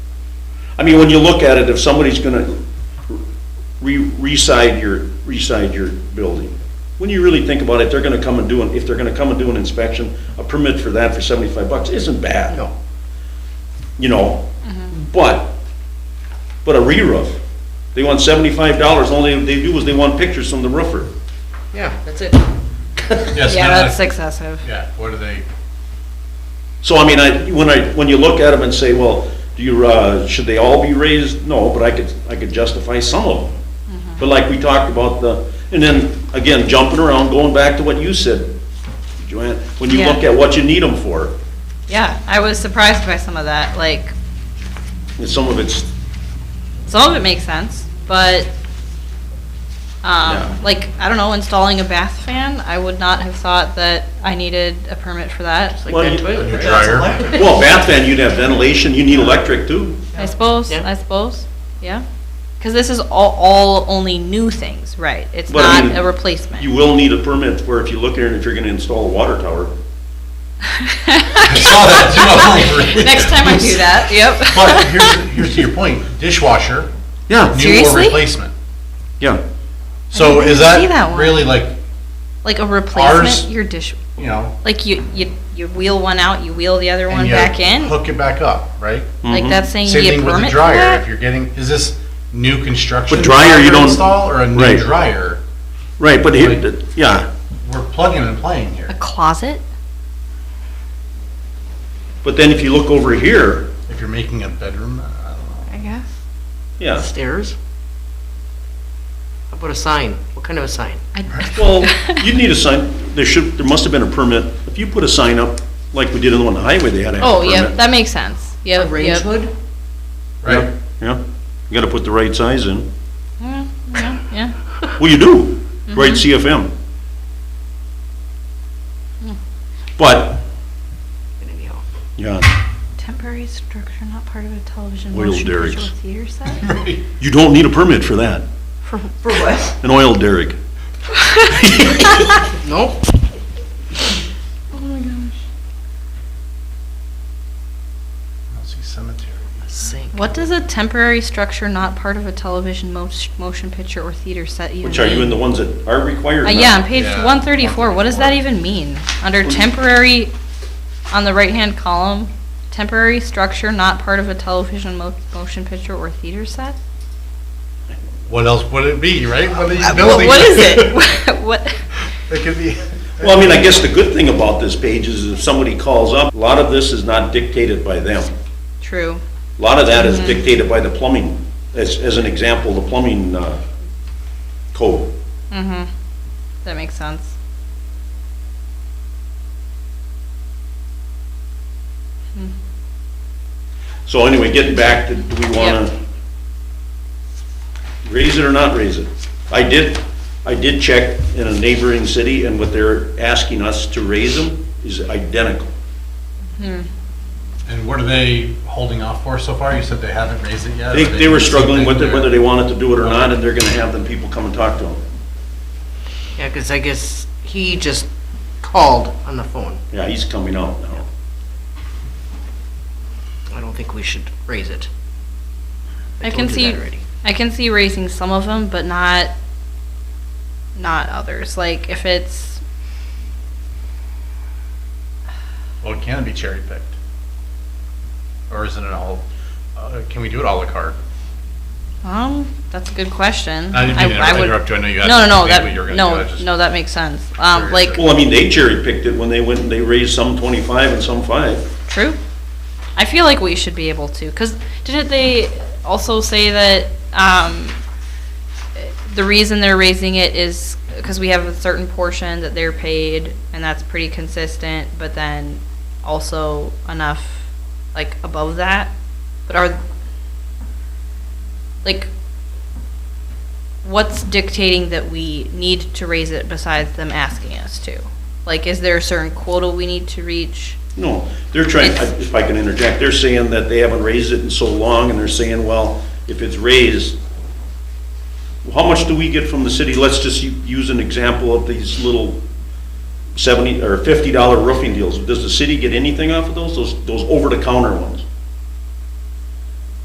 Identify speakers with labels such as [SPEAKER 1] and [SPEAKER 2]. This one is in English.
[SPEAKER 1] I mean, when you look at it, if somebody's gonna re, re-side your, re-side your building, when you really think about it, they're gonna come and do, an if they're gonna come and do an inspection, a permit for that for seventy-five bucks isn't bad.
[SPEAKER 2] No.
[SPEAKER 1] You know, but, but a re-roof, they want seventy-five dollars, only they do is they want pictures from the roofer.
[SPEAKER 2] Yeah, that's it.
[SPEAKER 3] Yes,
[SPEAKER 4] Yeah,
[SPEAKER 3] none of
[SPEAKER 4] that's
[SPEAKER 3] that-
[SPEAKER 4] excessive.
[SPEAKER 3] Yeah, what are they,
[SPEAKER 1] So I mean, I, when I, when you look at them and say, well, do you, uh, should they all be raised? No, but I could, I could justify some of them. But like we talked about the, and then, again, jumping around, going back to what you said, Joanne, when you look
[SPEAKER 4] Yeah.
[SPEAKER 1] at what you need them for,
[SPEAKER 4] Yeah, I was surprised by some of that, like,
[SPEAKER 1] and some of it's,
[SPEAKER 4] some of it makes sense, but,
[SPEAKER 1] Yeah.
[SPEAKER 4] um, like, I don't know, installing a bath fan, I would not have thought that I needed a permit for that,
[SPEAKER 2] Like
[SPEAKER 1] Well,
[SPEAKER 2] that
[SPEAKER 1] you-
[SPEAKER 2] toilet,
[SPEAKER 3] Your
[SPEAKER 2] right?
[SPEAKER 3] dryer.
[SPEAKER 2] That's electric.
[SPEAKER 1] well, bath fan, you'd have ventilation, you need electric too.
[SPEAKER 4] I suppose,
[SPEAKER 2] Yeah.
[SPEAKER 4] I suppose, yeah. Cause this is all, all only new things, right? It's
[SPEAKER 1] But I mean,
[SPEAKER 4] not a replacement.
[SPEAKER 1] You will need a permit for if you look at it, if you're gonna install a water tower.
[SPEAKER 3] I saw that too.
[SPEAKER 4] Next time I do that, yep.
[SPEAKER 3] But here's, here's to your point, dishwasher,
[SPEAKER 1] Yeah.
[SPEAKER 3] new or
[SPEAKER 4] Seriously?
[SPEAKER 3] replacement.
[SPEAKER 1] Yeah.
[SPEAKER 3] So
[SPEAKER 4] didn't
[SPEAKER 3] is
[SPEAKER 4] see that
[SPEAKER 3] that
[SPEAKER 4] one.
[SPEAKER 3] really like,
[SPEAKER 4] Like a
[SPEAKER 3] Ours-
[SPEAKER 4] replacement, your dish,
[SPEAKER 3] you know,
[SPEAKER 4] like you, you, you wheel one out, you wheel the other
[SPEAKER 3] and
[SPEAKER 4] one
[SPEAKER 3] you
[SPEAKER 4] back in,
[SPEAKER 3] hook it back up, right?
[SPEAKER 4] like that's saying you
[SPEAKER 3] Same
[SPEAKER 4] get
[SPEAKER 3] thing with the
[SPEAKER 4] permit for that?
[SPEAKER 3] dryer, if you're getting, is this new construction?
[SPEAKER 1] But dryer, you don't-
[SPEAKER 3] Install or a new
[SPEAKER 1] Right.
[SPEAKER 3] dryer?
[SPEAKER 1] Right, but
[SPEAKER 3] here-
[SPEAKER 1] yeah,
[SPEAKER 3] We're plugging and playing
[SPEAKER 4] A
[SPEAKER 3] here.
[SPEAKER 4] closet?
[SPEAKER 1] but then if you look over here,
[SPEAKER 3] If you're making a bedroom, I don't know.
[SPEAKER 4] I guess.
[SPEAKER 1] yeah,
[SPEAKER 2] Stairs? How about a sign? What kind of a sign?
[SPEAKER 1] Well, you'd need a sign, there should, there must have been a permit. If you put a sign up, like we did on the one on the highway, they had to have a
[SPEAKER 4] Oh,
[SPEAKER 1] permit.
[SPEAKER 4] yeah, that makes sense.
[SPEAKER 2] A
[SPEAKER 4] Yeah,
[SPEAKER 2] range
[SPEAKER 4] yeah.
[SPEAKER 2] hood?
[SPEAKER 3] Right?
[SPEAKER 1] Yeah, you gotta put the right size in.
[SPEAKER 4] Yeah,
[SPEAKER 1] Well, you do,
[SPEAKER 4] Mm-hmm.
[SPEAKER 1] right CFM.
[SPEAKER 4] Hmm.
[SPEAKER 1] But,
[SPEAKER 2] Anyhow.
[SPEAKER 1] yeah,
[SPEAKER 4] temporary structure not part of a television,
[SPEAKER 1] Oil
[SPEAKER 4] motion picture,
[SPEAKER 1] derricks.
[SPEAKER 4] theater set?
[SPEAKER 3] Right.
[SPEAKER 1] you don't need a permit for that,
[SPEAKER 2] For what?
[SPEAKER 1] an oil derrick.
[SPEAKER 2] Nope.
[SPEAKER 3] I don't see cemetery.
[SPEAKER 2] Sink.
[SPEAKER 4] What does a temporary structure not part of a television mo- motion picture or theater set even mean?
[SPEAKER 1] Which are you in the ones that are required
[SPEAKER 4] Uh,
[SPEAKER 1] now?
[SPEAKER 4] yeah, on page
[SPEAKER 3] Yeah,
[SPEAKER 4] one thirty-four, what does that even mean? Under temporary, on the right-hand column, temporary structure not part of a television mo- motion picture or theater set?
[SPEAKER 3] What else would it be, right? What are you
[SPEAKER 4] Uh, wha-
[SPEAKER 3] building?
[SPEAKER 4] What is it? What?
[SPEAKER 3] It could be.
[SPEAKER 1] Well, I mean, I guess the good thing about this page is if somebody calls up, a lot of this is not dictated by them.
[SPEAKER 4] True.
[SPEAKER 1] A lot of that is dictated by the plumbing, as, as an example, the plumbing uh, code.
[SPEAKER 4] Mm-hmm. That makes sense.
[SPEAKER 1] So anyway, getting back to, do we want to raise it or not raise it? I did, I did check in a neighboring city, and what they're asking us to raise them is identical.
[SPEAKER 3] And what are they holding off for so far? You said they haven't raised it yet?
[SPEAKER 1] They,
[SPEAKER 3] Are
[SPEAKER 1] they were
[SPEAKER 3] doing
[SPEAKER 1] struggling with it,
[SPEAKER 3] something
[SPEAKER 1] whether
[SPEAKER 3] there?
[SPEAKER 1] they wanted to do it or not, and they're going to have them people come and talk to them.
[SPEAKER 2] Yeah, because I guess he just called on the phone.
[SPEAKER 1] Yeah, he's coming out now.
[SPEAKER 2] I don't think we should raise it.
[SPEAKER 4] I can
[SPEAKER 2] told you
[SPEAKER 4] see-
[SPEAKER 2] that already.
[SPEAKER 4] I can see raising some of them, but not, not others. Like if it's,
[SPEAKER 3] Well, it can be cherry picked. Or isn't it all, uh, can we do it à la carte?
[SPEAKER 4] um, that's a good question.
[SPEAKER 3] I didn't mean to
[SPEAKER 4] I would-
[SPEAKER 3] interrupt you. I know you had
[SPEAKER 4] No, no, no,
[SPEAKER 3] something that
[SPEAKER 4] that,
[SPEAKER 3] you were gonna do. I
[SPEAKER 4] no,
[SPEAKER 3] just-
[SPEAKER 4] no, that makes sense. Um,
[SPEAKER 3] Curious.
[SPEAKER 4] like,
[SPEAKER 1] Well, I mean, they cherry picked it when they went and they raised some 25 and some 5.
[SPEAKER 4] true. I feel like we should be able to, because didn't they also say that, um, the reason they're raising it is because we have a certain portion that they're paid, and that's pretty consistent, but then also enough, like, above that? But are, like, what's dictating that we need to raise it besides them asking us to? Like, is there a certain quota we need to reach?
[SPEAKER 1] No, they're trying, if I can interject, they're saying that they haven't raised it in so long, and they're saying, well, if it's raised, how much do we get from the city? Let's just u- use an example of these little 70, or $50 roofing deals. Does the city get anything off of those, those, those over-the-counter ones?